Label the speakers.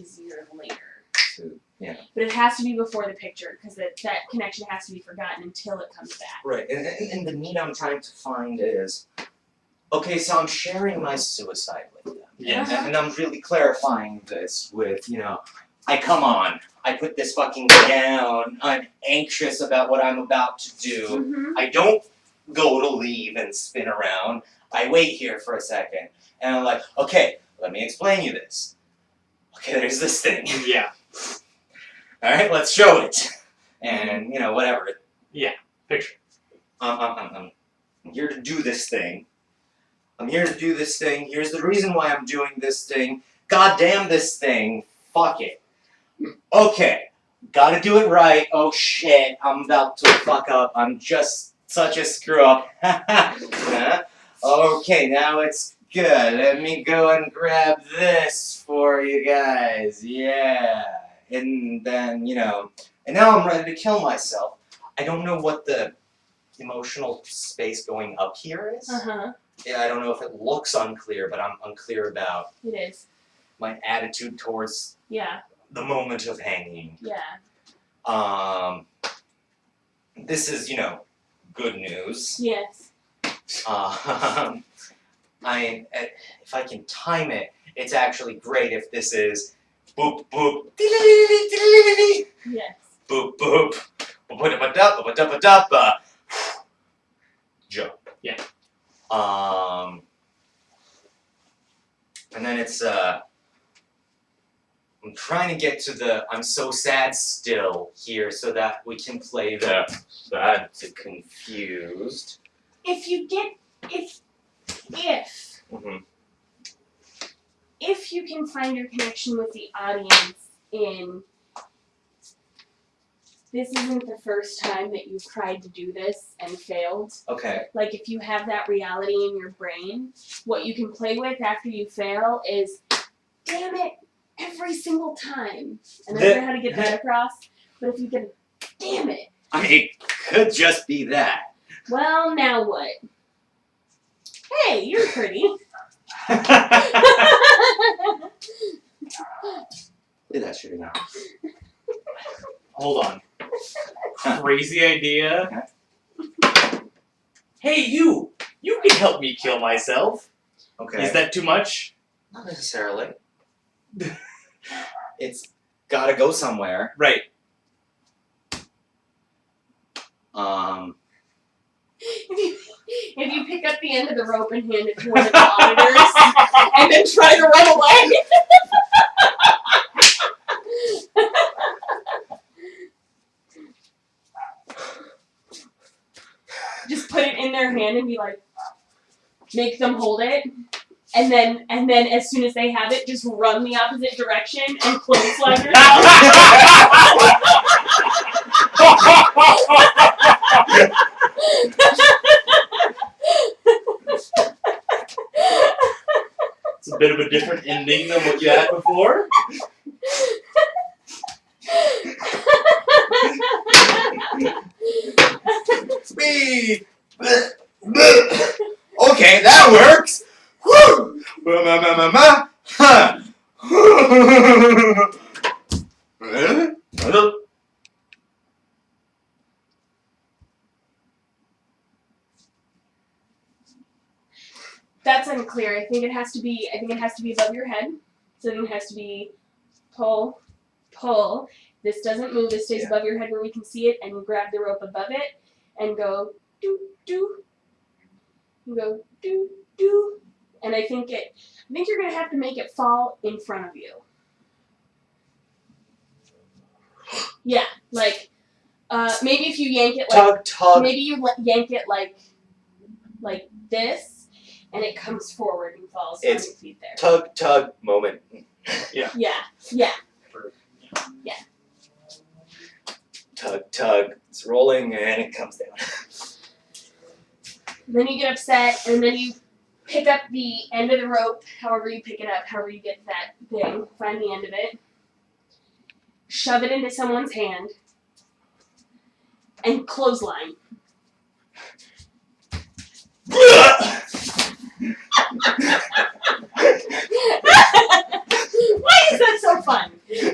Speaker 1: easier later.
Speaker 2: to- yeah.
Speaker 1: But it has to be before the picture because that, that connection has to be forgotten until it comes back.
Speaker 2: Right, and, and, and the meat I'm trying to find is, okay, so I'm sharing my suicide with them.
Speaker 3: Yeah.
Speaker 2: And, and I'm really clarifying this with, you know, I come on, I put this fucking down, I'm anxious about what I'm about to do.
Speaker 1: Mm-hmm.
Speaker 2: I don't go to leave and spin around. I wait here for a second, and I'm like, okay, let me explain you this. Okay, there's this thing.
Speaker 3: Yeah.
Speaker 2: All right, let's show it. And, you know, whatever,
Speaker 3: Picture.
Speaker 2: I'm, I'm, I'm, I'm- I'm here to do this thing. I'm here to do this thing. Here's the reason why I'm doing this thing. God damn this thing. Fuck it. Okay. Gotta do it right. Oh shit. I'm about to fuck up. I'm just such a screw up. Huh? okay, now it's good. Let me go and grab this for you guys. Yeah. And then, you know. And now I'm ready to kill myself. I don't know what the emotional space going up here is.
Speaker 1: Uh huh.
Speaker 2: Yeah, I don't know if it looks unclear, but I'm unclear about
Speaker 1: It is.
Speaker 2: my attitude towards
Speaker 1: Yeah.
Speaker 2: the moment of hanging.
Speaker 1: Yeah.
Speaker 2: Um, this is, you know, good news.
Speaker 1: Yes.
Speaker 2: Um, I eh, if I can time it, it's actually great if this is boop boop
Speaker 1: Yes.
Speaker 2: boop boop ba-ba-da-ba-da-ba-da-ba-da-ba. jump.
Speaker 3: Yeah.
Speaker 2: Um and then it's uh I'm trying to get to the I'm so sad still here so that we can play the sad to confused.
Speaker 1: If you get if if
Speaker 2: Mhm.
Speaker 1: if you can find your connection with the audience in this isn't the first time that you've tried to do this and failed.
Speaker 2: Okay.
Speaker 1: Like if you have that reality in your brain, what you can play with after you fail is, damn it, every single time. And I don't know how to get that across, but if you can, damn it.
Speaker 2: I mean it could just be that.
Speaker 1: Well, now what? Hey, you're pretty.
Speaker 2: Play that shit now.
Speaker 3: Hold on. Crazy idea. Hey, you! You can help me kill myself.
Speaker 2: Okay.
Speaker 3: Is that too much?
Speaker 2: Not necessarily. it's gotta go somewhere.
Speaker 3: Right.
Speaker 2: Um,
Speaker 1: if, you, if you pick up the end of the rope and hand it to one of the auditors and then try to run away. Just put it in their hand and be like, make them hold it. And then, and then, as soon as they have it, just run the opposite direction and clothesline yourself.
Speaker 3: It's a bit of a different ending than what you had before.
Speaker 2: speed. okay, that works. Woo! Ma, ma, ma, ma, ma. Huh. Huh?
Speaker 1: That's unclear. I think it has to be. I think it has to be above your head. So then it has to be pull, pull. This doesn't move. This stays
Speaker 2: Yeah.
Speaker 1: above your head where we can see it, and you grab the rope above it and go do do. You go do do, and I think it. I think you're gonna have to make it fall in front of you. Yeah, like uh, maybe if you yank it like
Speaker 2: Tug, tug.
Speaker 1: Maybe you le- yank it like, like this, and it comes forward and falls
Speaker 2: It's-
Speaker 1: on your feet there.
Speaker 2: Tug, tug. Moment.
Speaker 1: Yeah, yeah,
Speaker 2: Tug, tug. It's rolling and it comes down.
Speaker 1: then you get upset, and then you pick up the end of the rope, however you pick it up, however you get that thing, find the end of it, shove it into someone's hand, and clothesline. Why makes that so fun.